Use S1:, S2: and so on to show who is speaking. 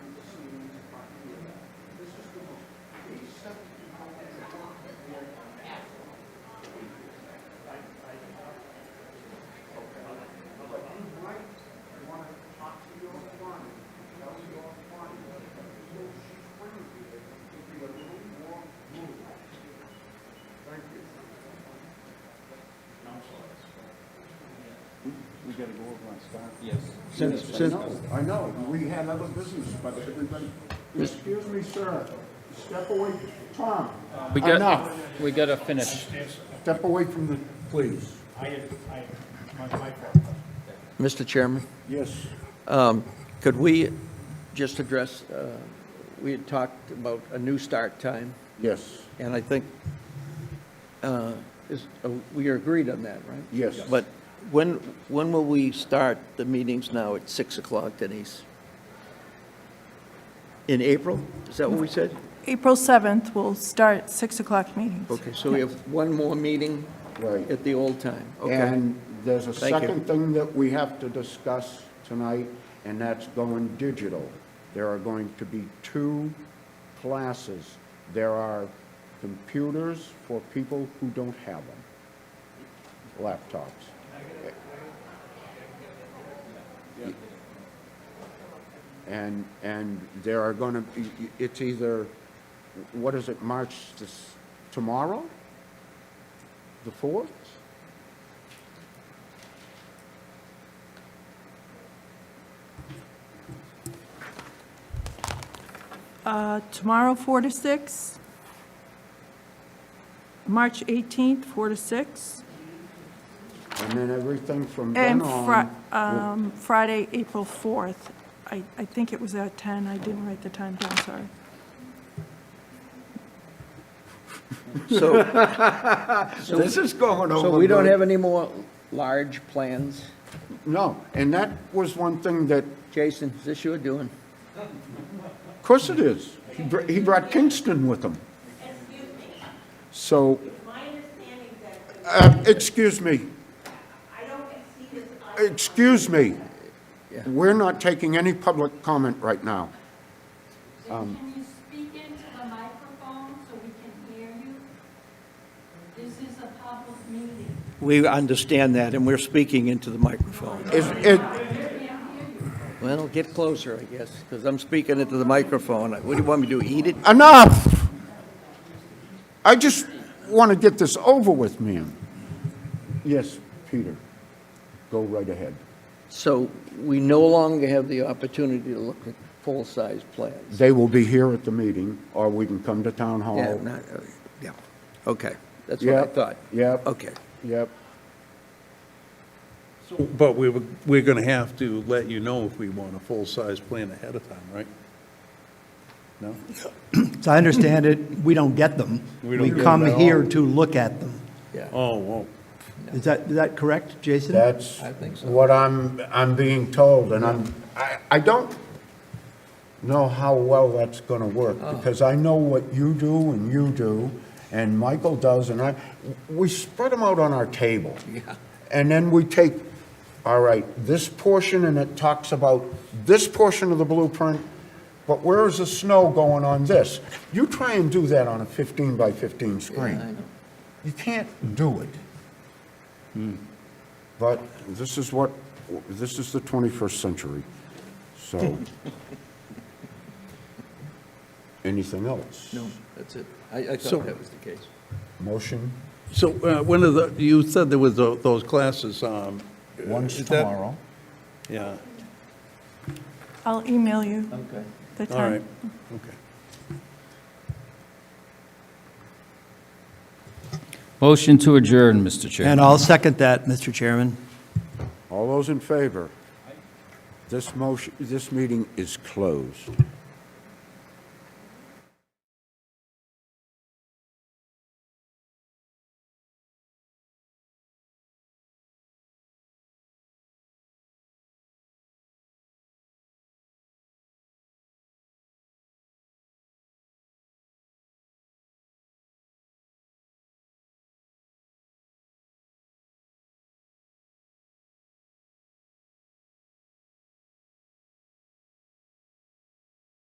S1: to go over on Scott.
S2: Yes.
S3: Since,
S1: Yes, I
S3: since,
S1: know, I know, we had other business, but everybody, excuse me, sir, step away, Tom,
S2: We got,
S1: Enough.
S2: we gotta finish.
S1: step away from the, please.
S3: Mr. Chairman,
S1: Yes,
S3: could we just address, uh, we had talked about a new start time,
S1: yes,
S3: and I think, uh, is, uh, we agreed on that, right?
S1: yes.
S3: But when, when will we start the meetings now at 6 o'clock, Denise? In April? Is that what we said?
S4: April 7th, we'll start 6 o'clock meetings.
S3: Okay, so we have one more meeting
S1: Right.
S3: at the old time. Okay.
S1: And there's a
S3: Thank you.
S1: second thing that we have to discuss tonight, and that's going digital. There are going to be two classes. There are computers for people who don't have them, laptops. And, and there are going to be, it's either, what is it, March, this, tomorrow? The 4th?
S4: Uh, Tomorrow, 4 to 6. March 18th, 4 to 6.
S1: And then everything from then
S4: And
S1: on.
S4: Fri- um, Friday, April 4th. I I think it was at 10. I didn't write the time down, sorry.
S3: So,
S1: This is going
S3: so we don't have any more large plans?
S1: No, and that was one thing that,
S3: Jason, is this your doing?
S1: of course it is. He br- He brought Kingston with him.
S5: Excuse me,
S1: So,
S5: it's my understanding that
S1: uh, excuse me,
S5: I don't see this item
S1: excuse me. We're not taking any public comment right now.
S6: Can you speak into the microphone so we can hear you? This is a public meeting.
S3: We understand that, and we're speaking into the microphone.
S1: Is, it,
S3: Well, get closer, I guess, because I'm speaking into the microphone. What do you want me to do, eat it?
S1: enough! I just want to get this over with, ma'am. Yes, Peter, go right ahead.
S3: So we no longer have the opportunity to look at full-size plans.
S1: They will be here at the meeting, or we can come to town hall.
S3: Yeah, not- uh, yeah, okay, that's what I
S1: Yep,
S3: thought.
S1: yep.
S3: Okay,
S1: Yep.
S7: But we, were- we're going to have to let you know if we want a full-size plan ahead of time, right? No?
S8: As I understand it, we don't get them.
S7: We don't
S8: We
S7: get them
S8: come
S7: at all.
S8: here to look at them.
S3: yeah.
S7: Oh, well,
S8: Is that, is that correct, Jason?
S1: That's
S3: I think so.
S1: what I'm, I'm being told, and I'm, I, I don't know how well that's gonna work,
S3: Oh.
S1: because I know what you do and you do, and Michael does, and I, we spread them out on our table. Yeah. And then we take, all right, this portion, and it talks about this portion of the blueprint, but where is the snow going on this? You try and do that on a fifteen by fifteen screen. You can't do it. But Hmm. this is what, this is the 21st century, so. Anything else?
S3: No, that's it. I, I
S7: So-
S3: thought that was the case.
S1: Motion,
S7: so uh, when are the, you said there was tho- those classes, um.
S1: one's
S7: is that-
S1: tomorrow.
S7: Yeah,
S4: I'll email you
S3: Okay.
S4: the
S7: all right,
S4: time.
S7: okay.
S2: Motion to adjourn, Mr. Chairman.
S8: And I'll second that, Mr. Chairman.
S1: All those in favor? This motion, this meeting is closed.